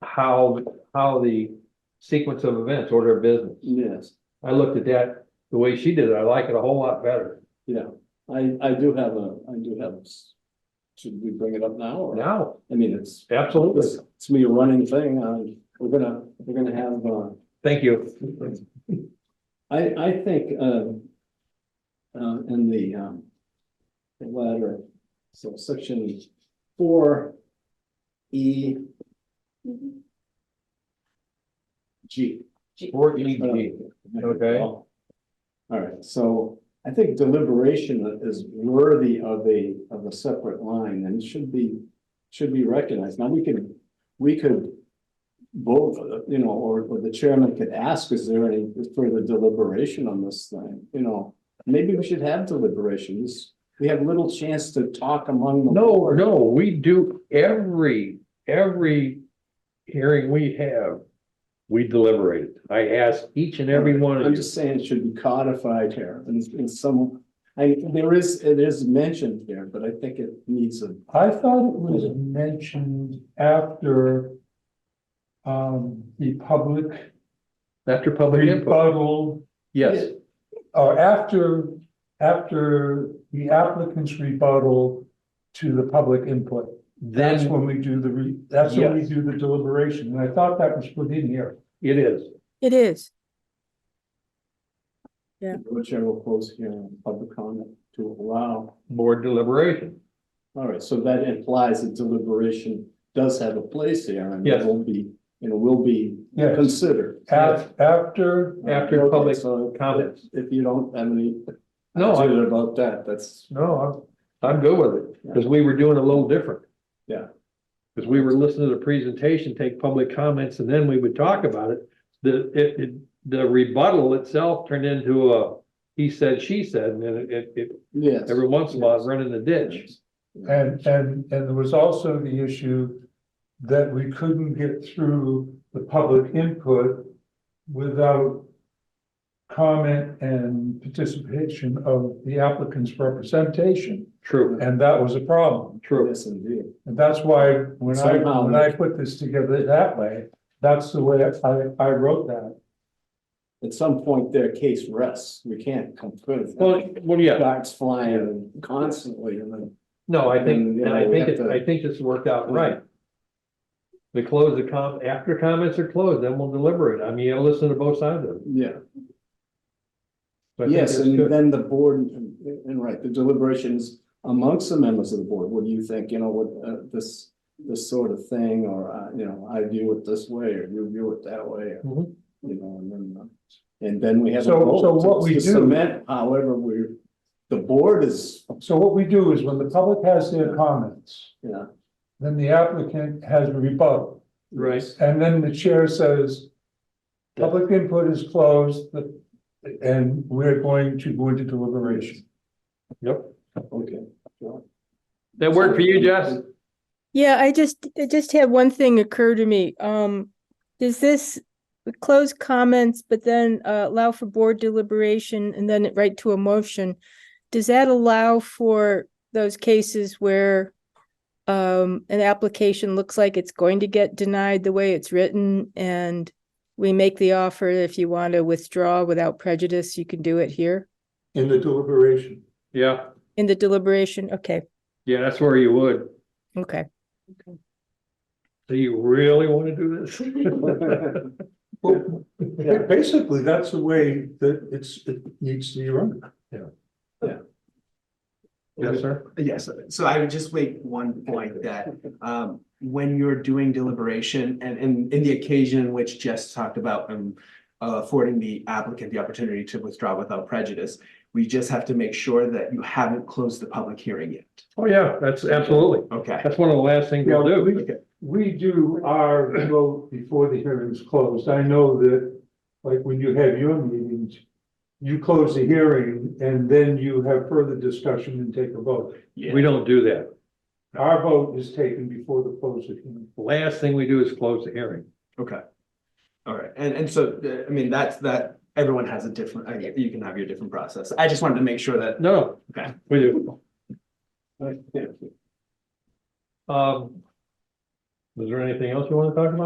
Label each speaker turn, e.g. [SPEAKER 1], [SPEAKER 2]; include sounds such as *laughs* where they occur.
[SPEAKER 1] how, how the sequence of events, order of business.
[SPEAKER 2] Yes,
[SPEAKER 1] I looked at that, the way she did it, I like it a whole lot better.
[SPEAKER 2] yeah, I, I do have a, I do have, a s- should we bring it up now? or-
[SPEAKER 1] Now,
[SPEAKER 2] I mean, it's,
[SPEAKER 1] absolutely.
[SPEAKER 2] it's, it's me running thing, um, we're gonna, we're gonna have, uh,
[SPEAKER 1] Thank you.
[SPEAKER 2] I, I think, um, uh, in the, um, the letter, so section four E G.
[SPEAKER 1] Four E
[SPEAKER 2] Uh,
[SPEAKER 1] G. Okay.
[SPEAKER 2] All right, so I think deliberation is worthy of a, of a separate line and should be, should be recognized. Now, we could, we could vote, for the- you know, or, or the chairman could ask, is there any further deliberation on this thing? You know, maybe we should have deliberations. We have little chance to talk among them.
[SPEAKER 1] No, no, we do every, every hearing we have, we deliberate it. I ask each and every one
[SPEAKER 2] I'm
[SPEAKER 1] of you.
[SPEAKER 2] just saying it should be codified here in, in some, I, there is, it is mentioned here, but I think it needs a
[SPEAKER 3] I thought it was mentioned after um, the public
[SPEAKER 1] After public input,
[SPEAKER 3] rebuttal,
[SPEAKER 1] yes,
[SPEAKER 3] or after, after the applicant's rebuttal to the public input. That's
[SPEAKER 1] then
[SPEAKER 3] when we do the, re- that's when we
[SPEAKER 1] Yes.
[SPEAKER 3] do the deliberation, and I thought that was put in here.
[SPEAKER 1] it is.
[SPEAKER 4] It is.
[SPEAKER 2] Chair will close here on public comment to allow.
[SPEAKER 1] Board deliberation.
[SPEAKER 2] All right, so that implies that deliberation does have a place here and it
[SPEAKER 1] Yes.
[SPEAKER 2] will be, you know, will be
[SPEAKER 3] Yes,
[SPEAKER 2] considered.
[SPEAKER 3] af- after,
[SPEAKER 1] After
[SPEAKER 2] Okay,
[SPEAKER 1] public
[SPEAKER 2] so
[SPEAKER 1] comments.
[SPEAKER 2] If you don't have any.
[SPEAKER 1] No, I-
[SPEAKER 2] concern About that, that's,
[SPEAKER 1] No, I'm, I'm good with it, because we were doing a little different.
[SPEAKER 2] Yeah.
[SPEAKER 1] Because we were listening to the presentation, take public comments, and then we would talk about it. The, it, it, the rebuttal itself turned into a, he said, she said, and then it- it, it,
[SPEAKER 2] yes.
[SPEAKER 1] every once in a while, it run in the ditch.
[SPEAKER 3] and, and, and there was also the issue that we couldn't get through the public input without comment and participation of the applicant's representation,
[SPEAKER 1] True,
[SPEAKER 3] and that was a problem.
[SPEAKER 1] true.
[SPEAKER 2] Yes, indeed.
[SPEAKER 3] And that's why when I,
[SPEAKER 2] Somehow-
[SPEAKER 3] when I put this together that way, that's the way I, I wrote that.
[SPEAKER 2] At some point, their case rests. We can't come through.
[SPEAKER 1] Well, well, yeah,
[SPEAKER 2] Darts flying constantly and then.
[SPEAKER 1] no, I think, and I
[SPEAKER 2] Then, you know, we
[SPEAKER 1] think,
[SPEAKER 2] have
[SPEAKER 1] it-
[SPEAKER 2] to-
[SPEAKER 1] I think this worked out right. We close the com, after comments are closed, then we'll deliberate. I mean, you gotta listen to both sides of it.
[SPEAKER 2] Yeah.
[SPEAKER 1] So I think
[SPEAKER 2] Yes,
[SPEAKER 1] that's
[SPEAKER 2] and
[SPEAKER 1] good.
[SPEAKER 2] then the board, and and right, the deliberations amongst the members of the board, what do you think, you know, what, uh, this, this sort of thing, or, uh, you know, I view it this way, or you view it that way, or,
[SPEAKER 1] Mhm.
[SPEAKER 2] you know, and then, uh, and then we have. a
[SPEAKER 3] Mm-hmm. So-
[SPEAKER 2] vote
[SPEAKER 3] so what
[SPEAKER 2] to-
[SPEAKER 3] we
[SPEAKER 2] to
[SPEAKER 3] do-
[SPEAKER 2] Cement, however, we're, the board is,
[SPEAKER 3] So what we do is when the public has their comments,
[SPEAKER 2] you know.
[SPEAKER 3] then the applicant has a rebuttal.
[SPEAKER 1] Right.
[SPEAKER 3] And then the chair says, public input is closed, the- and we're going to go into deliberation.
[SPEAKER 1] Yep.
[SPEAKER 2] Okay.
[SPEAKER 1] That worked for you,
[SPEAKER 2] *laughs*
[SPEAKER 1] Jess?
[SPEAKER 4] Yeah, I just, I just had one thing occur to me. Um, does this close comments, but then uh, allow for board deliberation and then right to a motion? Does that allow for those cases where um, an application looks like it's going to get denied the way it's written and we make the offer, if you want to withdraw without prejudice, you can do it here
[SPEAKER 3] In the deliberation.
[SPEAKER 1] Yeah,
[SPEAKER 4] in the deliberation? Okay,
[SPEAKER 1] yeah, that's where you would.
[SPEAKER 4] okay.
[SPEAKER 1] Do you really want to do
[SPEAKER 3] *laughs*
[SPEAKER 1] this?
[SPEAKER 2] Yeah.
[SPEAKER 3] Basically, that's the way that it's, it needs to be run.
[SPEAKER 1] Yes, sir.
[SPEAKER 5] Yes, so I would just make one point that um when you're doing deliberation and in in the occasion in which Jess talked about um uh, affording the applicant the opportunity to withdraw without prejudice, we just have to make sure that you haven't closed the public hearing yet.
[SPEAKER 1] Oh, yeah, that's absolutely.
[SPEAKER 5] Okay,
[SPEAKER 1] That's one of the last things
[SPEAKER 3] Yeah,
[SPEAKER 1] we'll do.
[SPEAKER 3] we, we do our vote before the hearing's closed. I know that, like, when you have your meetings, you close the hearing and then you have further discussion and take a vote.
[SPEAKER 5] yeah,
[SPEAKER 1] We don't do that.
[SPEAKER 3] Our vote is taken before the close of hearing.
[SPEAKER 1] The Last thing we do is close the hearing.
[SPEAKER 5] okay. All right, and and so, uh, I mean, that's that, everyone has a different, I mean, you can have your different process. I just wanted to make sure that,
[SPEAKER 1] No,
[SPEAKER 5] okay,
[SPEAKER 1] we do.
[SPEAKER 2] Yeah.
[SPEAKER 1] Um, was there anything else you want to talk about?